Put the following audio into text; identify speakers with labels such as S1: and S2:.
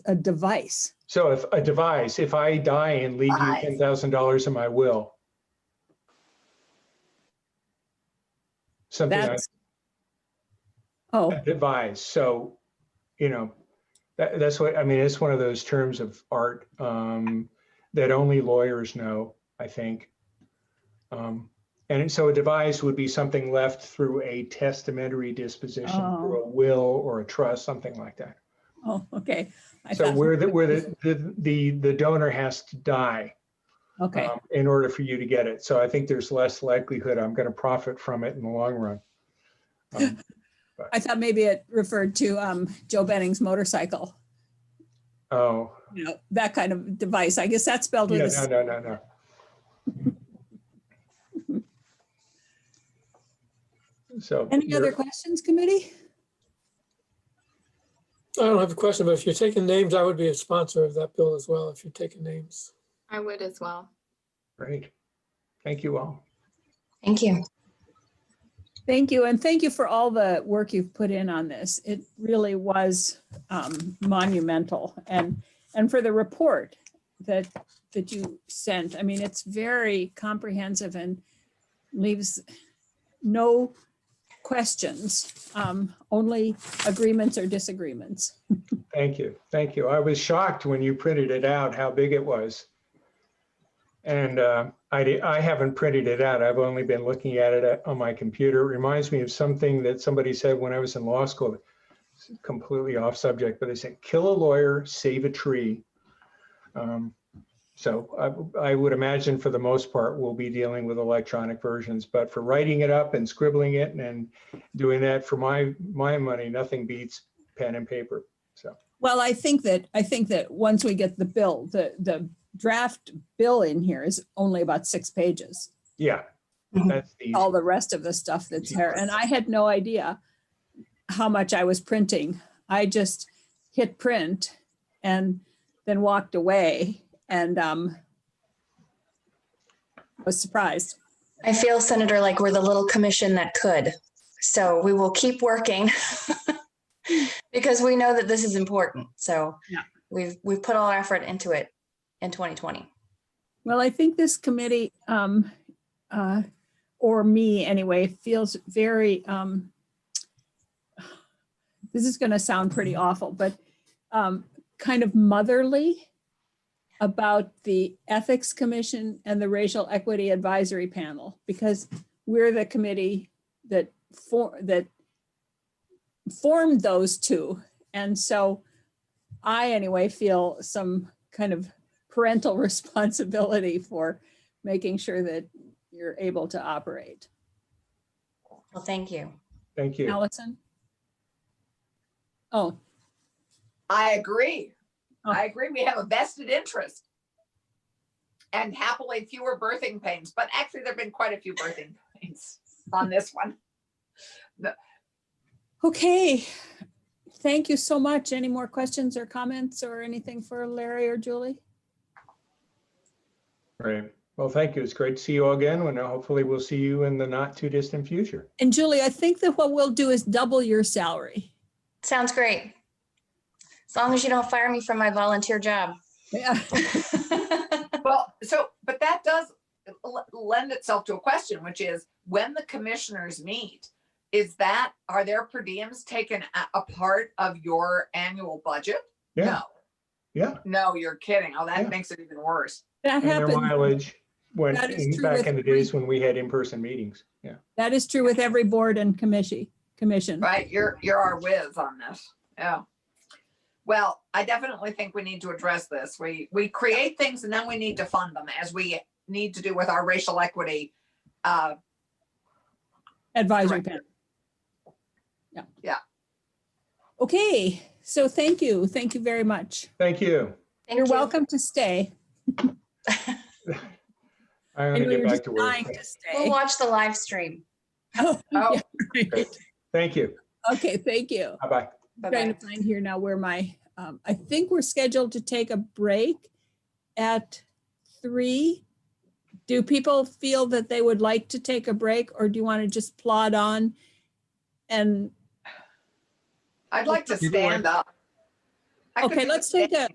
S1: a device.
S2: So if a device, if I die and leave you
S3: Device.
S2: ten thousand dollars in my will. Something I
S1: That's. Oh,
S2: advise, so, you know, that, that's what, I mean, it's one of those terms of art, um, that only lawyers know, I think. Um, and so a device would be something left through a testamentary disposition, or a will or a trust, something like that.
S1: oh, okay. I
S2: So
S1: thought-
S2: where the, where the, the- the, the donor has to die
S1: Okay,
S2: um, in order for you to get it. So I think there's less likelihood I'm going to profit from it in the long run. Um,
S1: I thought maybe it referred to um, Joe Benning's motorcycle,
S2: Oh,
S1: you know, that kind of device. I guess that's spelled with
S2: yeah,
S1: a
S2: no,
S1: s-
S2: no, no, no. So.
S1: Any other
S2: you're-
S1: questions, committee?
S4: I don't have a question, but if you're taking names, I would be a sponsor of that bill as well, if you're taking names.
S5: I would as well.
S2: Great. Thank you all.
S3: Thank you.
S1: Thank you, and thank you for all the work you've put in on this. It really was um, monumental, and and for the report that that you sent. I mean, it's very comprehensive and leaves no questions, um, only agreements or disagreements.
S2: Thank you. Thank you. I was shocked when you printed it out, how big it was. And uh, I, di- I haven't printed it out. I've only been looking at it at- on my computer. It reminds me of something that somebody said when I was in law school. It's Completely off subject, but they said, kill a lawyer, save a tree. Um, So I, I would imagine for the most part, we'll be dealing with electronic versions, but for writing it up and scribbling it and doing that for my, my money, nothing beats pen and paper.
S1: Well, I think that, I think that once we get the bill, the, the draft bill in here is only about six pages.
S2: Yeah,
S1: Mm-hmm.
S3: Mhm.
S2: that's the,
S1: All the rest of the stuff that's there. And I had no idea how much I was printing. I just hit print and then walked away and um was surprised.
S3: I feel, Senator, like we're the little commission that could. So we will keep working because we know that this is important. So
S1: Yeah.
S3: we've, we've put all our effort into it in 2020.
S1: Well, I think this committee, um, uh, or me anyway, feels very, um, this is gonna sound pretty awful, but, um, kind of motherly about the Ethics Commission and the Racial Equity Advisory Panel, because we're the committee that for, that formed those two. And so I anyway feel some kind of parental responsibility for making sure that you're able to operate.
S3: Well, thank you.
S2: thank you.
S1: Allison? Oh,
S6: I agree.
S1: Oh.
S6: I agree. We have a vested interest. And happily fewer birthing pains, but actually there've been quite a few birthing pains on this one.
S1: okay. Thank you so much. Any more questions or comments or anything for Larry or Julie?
S2: Right. Well, thank you. It's great to see you all again. And hopefully we'll see you in the not too distant future.
S1: And Julie, I think that what we'll do is double your salary.
S3: Sounds great. As long as you don't fire me from my volunteer job.
S1: Yeah.
S6: Well, so, but that does l- lend itself to a question, which is when the commissioners meet, is that, are their per diems taken a, a part of your annual budget?
S2: Yeah,
S6: No,
S2: yeah.
S6: no, you're kidding. Oh,
S2: Yeah.
S6: that makes it even worse.
S1: That
S2: And their
S1: happens.
S2: mileage when,
S1: That is true
S2: back
S1: with
S2: in the days when we had in-person meetings. Yeah.
S1: That is true with every board and commission, commission.
S6: Right, you're, you're our whiz on this, yeah. Well, I definitely think we need to address this. We, we create things and then we need to fund them as we need to do with our racial equity. Uh,
S1: Advisory
S6: Correct.
S1: panel. Yeah.
S6: Yeah.
S1: Okay, so thank you. Thank you very much.
S2: Thank you.
S3: Thank
S1: You're
S3: you.
S1: welcome to stay.
S2: I'm
S1: I
S2: going
S1: know
S2: to get
S1: you're
S2: back
S1: just
S2: to work.
S1: dying to
S3: We'll
S1: stay.
S3: watch the live stream.
S1: Oh,
S6: oh,
S1: yeah, right.
S2: Thank you.
S1: Okay, thank you.
S2: Bye-bye.
S3: Bye-bye.
S1: Trying to find here now where my, um, I think we're scheduled to take a break at three. Do people feel that they would like to take a break or do you want to just plod on? And
S6: I'd like to
S7: You know what?
S6: stand up. I could
S1: Okay,
S6: do
S1: let's
S6: the
S1: take a,